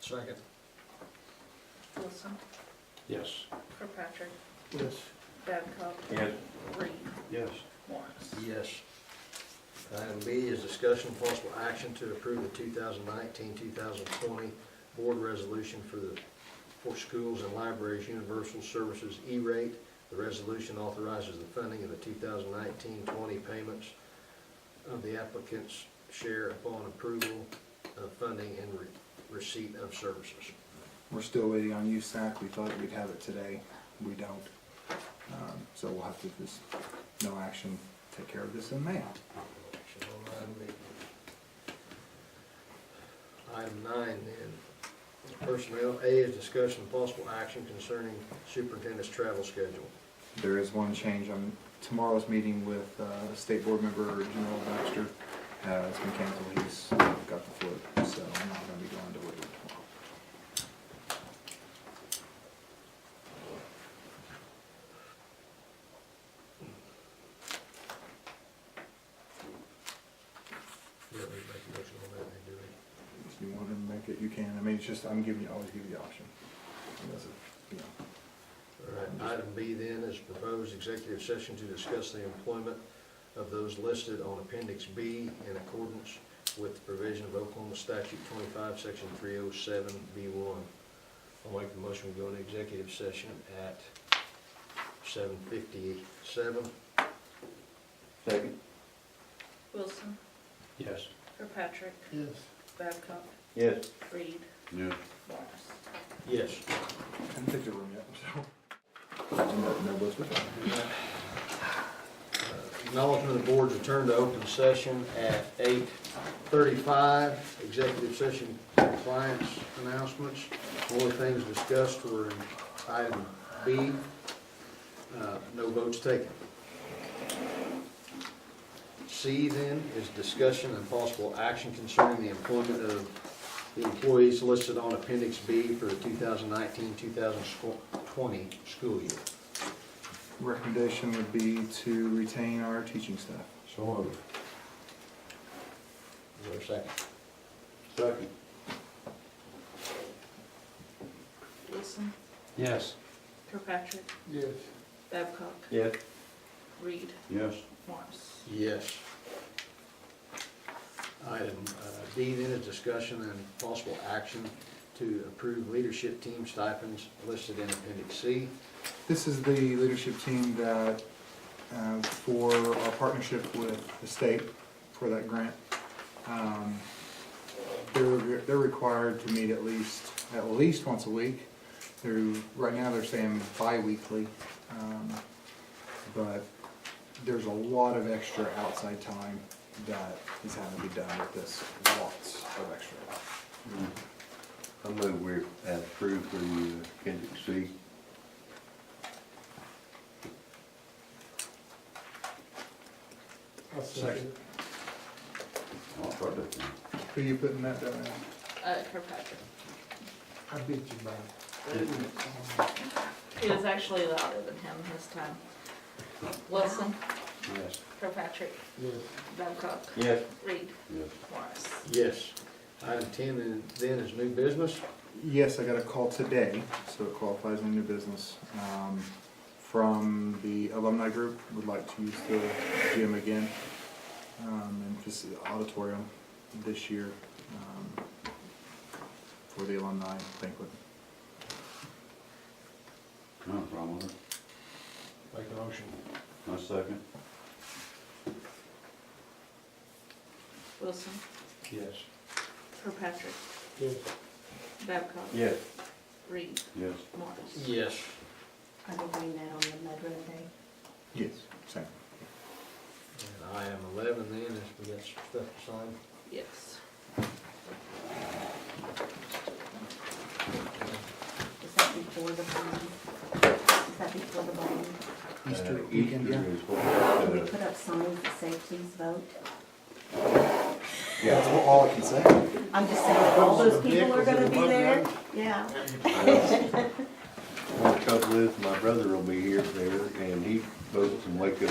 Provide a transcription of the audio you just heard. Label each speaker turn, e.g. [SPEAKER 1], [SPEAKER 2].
[SPEAKER 1] Second.
[SPEAKER 2] Wilson,
[SPEAKER 3] Yes.
[SPEAKER 2] Kirkpatrick,
[SPEAKER 4] Yes.
[SPEAKER 2] Babcock,
[SPEAKER 3] Yes.
[SPEAKER 2] Reed,
[SPEAKER 4] Yes.
[SPEAKER 2] Morris.
[SPEAKER 1] Yes. Item B is discussion of possible action to approve the 2019-2020 board resolution for the, for schools and libraries universal services E-rate. The resolution authorizes the funding of the 2019-20 payments of the applicant's share upon approval of funding and re- receipt of services.
[SPEAKER 5] We're still waiting on USAC. We thought we'd have it today. We don't. Um, So we'll have to just, no action, take care of this in May.
[SPEAKER 1] Action on item eight. Item nine then, personnel, A is discussion of possible action concerning superintendent's travel schedule.
[SPEAKER 5] There is one change on tomorrow's meeting with uh, State Board Member General Baxter. Uh, It's been canceled. He's got the flu, so I'm not going to be going to Woodward tomorrow.
[SPEAKER 1] Do we make a motion on that, then, do we?
[SPEAKER 5] If you want to make it, you can. I mean, it's just, I'm giving you, always give you the option. Unless it, you know,
[SPEAKER 1] All right, item B then is proposed executive session to discuss the employment of those listed on appendix B in accordance with the provision of Oklahoma statute twenty-five, section three oh seven, B one. I'll make the motion, we go into executive session at seven fifty-seven.
[SPEAKER 3] Second.
[SPEAKER 2] Wilson,
[SPEAKER 3] Yes.
[SPEAKER 2] Kirkpatrick,
[SPEAKER 4] Yes.
[SPEAKER 2] Babcock,
[SPEAKER 3] Yes.
[SPEAKER 2] Reed,
[SPEAKER 3] Yes.
[SPEAKER 2] Morris.
[SPEAKER 1] Yes.
[SPEAKER 5] I haven't picked a room yet, so. And that- that was with that.
[SPEAKER 1] Acknowledgement of the board's return to open session at eight thirty-five. Executive session compliance announcements. Only things discussed were in item B. Uh, No votes taken. C then is discussion and possible action concerning the employment of the employees listed on appendix B for the 2019-2020 school year.
[SPEAKER 5] Recommendation would be to retain our teaching staff.
[SPEAKER 3] So moved.
[SPEAKER 1] Is there a second?
[SPEAKER 3] Second.
[SPEAKER 2] Wilson,
[SPEAKER 3] Yes.
[SPEAKER 2] Kirkpatrick,
[SPEAKER 4] Yes.
[SPEAKER 2] Babcock,
[SPEAKER 3] Yes.
[SPEAKER 2] Reed,
[SPEAKER 3] Yes.
[SPEAKER 2] Morris.
[SPEAKER 1] Yes. Item uh, D then is discussion and possible action to approve leadership team stipends listed in appendix C.
[SPEAKER 5] This is the leadership team that, uh, for our partnership with the state for that grant. Um, They're, they're required to meet at least, at least once a week. They're, right now, they're saying bi-weekly. um, But there's a lot of extra outside time that is having to be done with this, lots of extra.
[SPEAKER 6] I move we approve the uh, appendix C.
[SPEAKER 4] I'll second.
[SPEAKER 6] I'll try to-
[SPEAKER 5] Who you putting that down as?
[SPEAKER 2] Uh, Kirkpatrick.
[SPEAKER 4] I beat you by.
[SPEAKER 2] He was actually louder than him this time. Wilson,
[SPEAKER 6] Yes.
[SPEAKER 2] Kirkpatrick,
[SPEAKER 4] Yes.
[SPEAKER 2] Babcock,
[SPEAKER 3] Yes.
[SPEAKER 2] Reed,
[SPEAKER 6] Yes.
[SPEAKER 2] Morris.
[SPEAKER 1] Yes. Item ten then- then is new business.
[SPEAKER 5] Yes, I got a call today, so it qualifies in new business, um, from the alumni group, would like to use the gym again, um, and just the auditorium this year, um, for the alumni banquet.
[SPEAKER 6] No problem with it.
[SPEAKER 1] Make a motion.
[SPEAKER 6] My second.
[SPEAKER 2] Wilson,
[SPEAKER 3] Yes.
[SPEAKER 2] Kirkpatrick,
[SPEAKER 4] Yes.
[SPEAKER 2] Babcock,
[SPEAKER 3] Yes.
[SPEAKER 2] Reed,
[SPEAKER 6] Yes.
[SPEAKER 2] Morris.
[SPEAKER 1] Yes.
[SPEAKER 7] I will bring that on the Mud Run Day.
[SPEAKER 5] Yes. Same.
[SPEAKER 1] And item eleven then is we got some stuff to sign.
[SPEAKER 2] Yes.
[SPEAKER 7] Is that before the bond? Is that before the bond?
[SPEAKER 5] Easter
[SPEAKER 6] Uh,
[SPEAKER 5] weekend, yeah.
[SPEAKER 6] Easter is what, uh,
[SPEAKER 7] Can we put up signs that say please vote?
[SPEAKER 5] Yeah, that's all I can say.
[SPEAKER 7] I'm just saying, all those people are gonna be
[SPEAKER 4] Vehicles in the
[SPEAKER 7] there,
[SPEAKER 4] Mud
[SPEAKER 7] yeah.
[SPEAKER 6] Well, the trouble is, my brother will be here there, and he votes in Waco